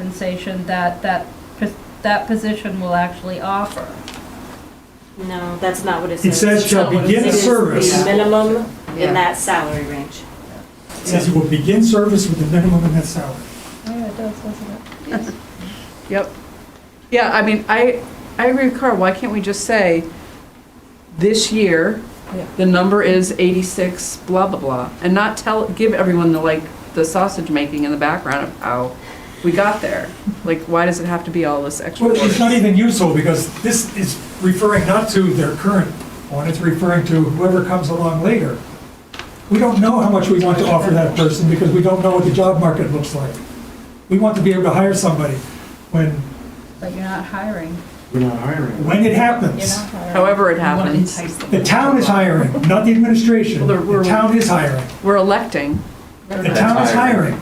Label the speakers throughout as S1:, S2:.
S1: compensation that that, pos- that position will actually offer.
S2: No, that's not what it
S3: It
S2: says.
S3: says shall begin
S2: It is
S3: service,
S2: The
S3: it
S2: minimum
S4: Yeah.
S2: in that salary range.
S3: says it will begin service with the minimum in that salary.
S1: Yeah, it does, doesn't it?
S4: Yep. Yeah, I mean, I, I agree with Carl, why can't we just say, this year,
S1: Yeah.
S4: the number is eighty-six, blah, blah, blah, and not tell, give everyone the, like, the sausage making in the background of how we got there? Like, why does it have to be all this extra
S3: Well,
S4: work?
S3: it's not even useful, because this is referring not to their current one, it's referring to whoever comes along later. We don't know how much we want to offer that person, because we don't know what the job market looks like. We want to be able to hire somebody when,
S1: But you're not hiring,
S5: We're not hiring.
S3: when it
S1: you're
S3: happens.
S1: not hiring.
S4: However it
S6: You wanna
S4: happens,
S6: entice them.
S3: The town is hiring, not the administration.
S4: Well, we're-
S3: The town is hiring.
S4: we're electing,
S3: The town is hiring.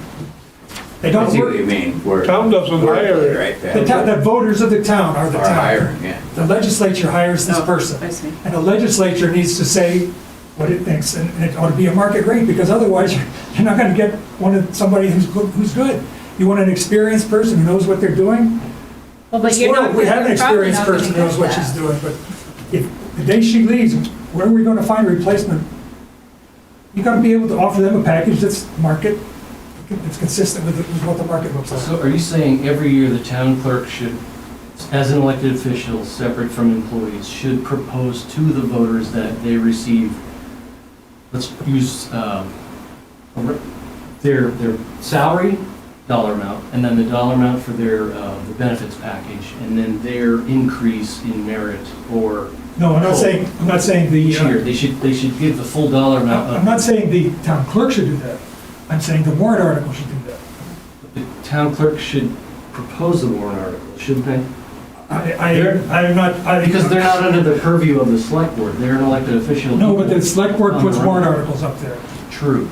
S3: They
S7: I
S3: don't
S7: see what you
S3: work,
S7: mean. We're-
S8: Town doesn't
S7: we're
S8: hire.
S7: Right
S3: the town, the
S7: there.
S3: voters of the town are the
S7: Are
S3: town.
S7: hiring, yeah.
S3: The legislature hires this
S4: Oh,
S3: person.
S4: I see.
S3: And the legislature needs to say what it thinks, and and it ought to be a market rate, because otherwise, you're not gonna get one of, somebody who's, go- who's good. You want an experienced person who knows what they're doing?
S1: Well, but you're
S3: Well,
S1: not-
S3: We have an
S1: you're probably
S3: experienced
S1: not gonna
S3: person who knows
S1: get
S3: what she's
S1: that.
S3: doing, but if, the day she leaves, where are we gonna find a replacement? You gotta be able to offer them a package that's market, that's consistent with, with what the market looks like.
S9: So are you saying every year the town clerk should, as an elected official, separate from employees, should propose to the voters that they receive, let's use, um, a re- their, their salary, dollar amount, and then the dollar amount for their, uh, the benefits package, and then their increase in merit or
S3: No, I'm not saying, I'm not saying the,
S9: each year?
S3: uh,
S9: They should, they should give the full dollar amount
S3: I'm
S9: of
S3: not saying the town clerk should do that. I'm saying the warrant article should do that.
S9: The town clerk should propose the warrant article, shouldn't they?
S3: I, I, I'm not, I.
S9: Because they're not under the purview of the select board, they're an elected official.
S3: No, but the select board puts warrant articles up there.
S9: True,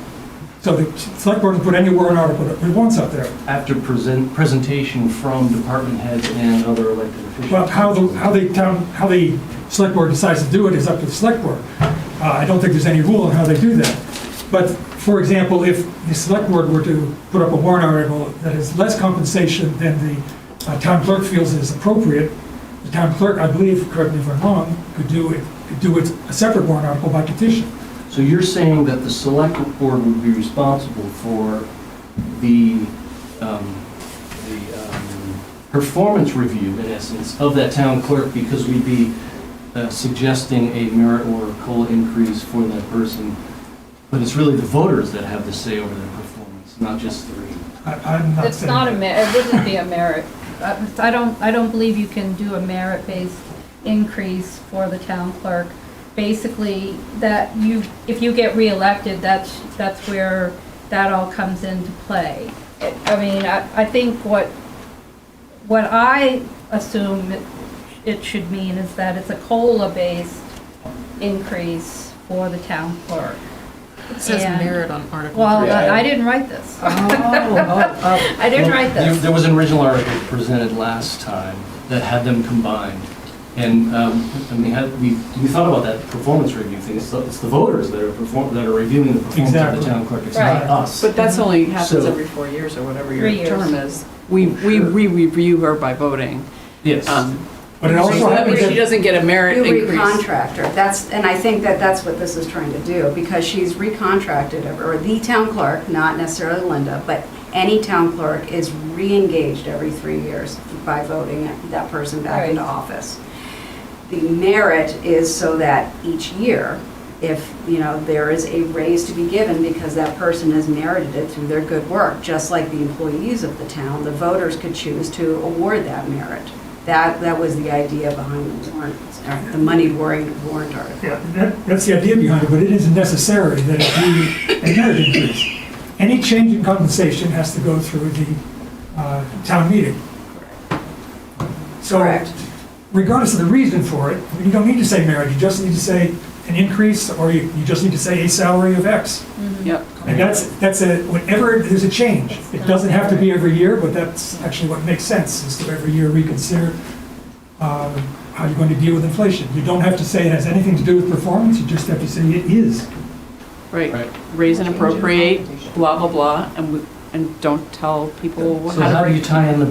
S3: So the select board can put any warrant article that it wants up there.
S9: after present, presentation from department heads and other elected officials.
S3: Well, how the, how the town, how the select board decides to do it is up to the select board. Uh, I don't think there's any rule on how they do that. But, for example, if the select board were to put up a warrant article that is less compensation than the uh, town clerk feels is appropriate, the town clerk, I believe, correct me if I'm wrong, could do it, could do it, a separate warrant article by petition.
S9: So you're saying that the select board would be responsible for the, um, the, um, performance review, in essence, of that town clerk, because we'd be uh, suggesting a merit or a COLA increase for that person, but it's really the voters that have the say over their performance, not just the region.
S3: I, I'm not saying.
S1: It's not a merit, it wouldn't be a merit. I I don't, I don't believe you can do a merit-based increase for the town clerk. Basically, that you, if you get reelected, that's, that's where that all comes into play. It- I mean, I, I think what, what I assume it- it should mean is that it's a COLA-based increase for the town clerk.
S6: It says
S1: And-
S6: merit on Article
S1: Well,
S6: three.
S1: I I didn't write this. I didn't write
S9: There-
S1: this.
S9: There was an original article presented last time that had them combined. And, um, I mean, had, we, we thought about that performance review thing. It's the, it's the voters that are perform, that are reviewing the performance of
S3: Exactly.
S9: the town clerk. It's
S1: Right.
S9: not us.
S4: but that's only happens
S9: So-
S4: every four years or whatever
S1: Three
S4: your
S1: years.
S4: term is. We, we, we review her by voting.
S9: Yes.
S4: Um,
S3: But it also
S4: So that
S3: happens
S4: means she
S3: that,
S4: doesn't get a merit
S10: You
S4: increase.
S10: recontractor, that's, and I think that that's what this is trying to do, because she's recontracted, or the town clerk, not necessarily Linda, but any town clerk is reengaged every three years by voting that person back into
S1: Right.
S10: office. The merit is so that each year, if, you know, there is a raise to be given because that person has merited it through their good work, just like the employees of the town, the voters could choose to award that merit. That, that was the idea behind the warrant, or the money warrant, warrant article.
S3: yeah, that, that's the idea behind it, but it isn't necessary that it be a merit increase. Any change in compensation has to go through the, uh, town meeting. So
S10: Correct.
S3: regardless of the reason for it, you don't need to say merit, you just need to say an increase, or you, you just need to say a salary of X.
S4: Yep.
S3: And that's, that's a, whenever there's a change, it doesn't have to be every year, but that's actually what makes sense, is to every year reconsider um, how you're going to deal with inflation. You don't have to say it has anything to do with performance, you just have to say it is.
S4: Right,
S9: Right.
S4: raise and appropriate, blah, blah, blah, and we- and don't tell people
S9: So
S4: how to
S9: how do
S4: break
S9: you tie in the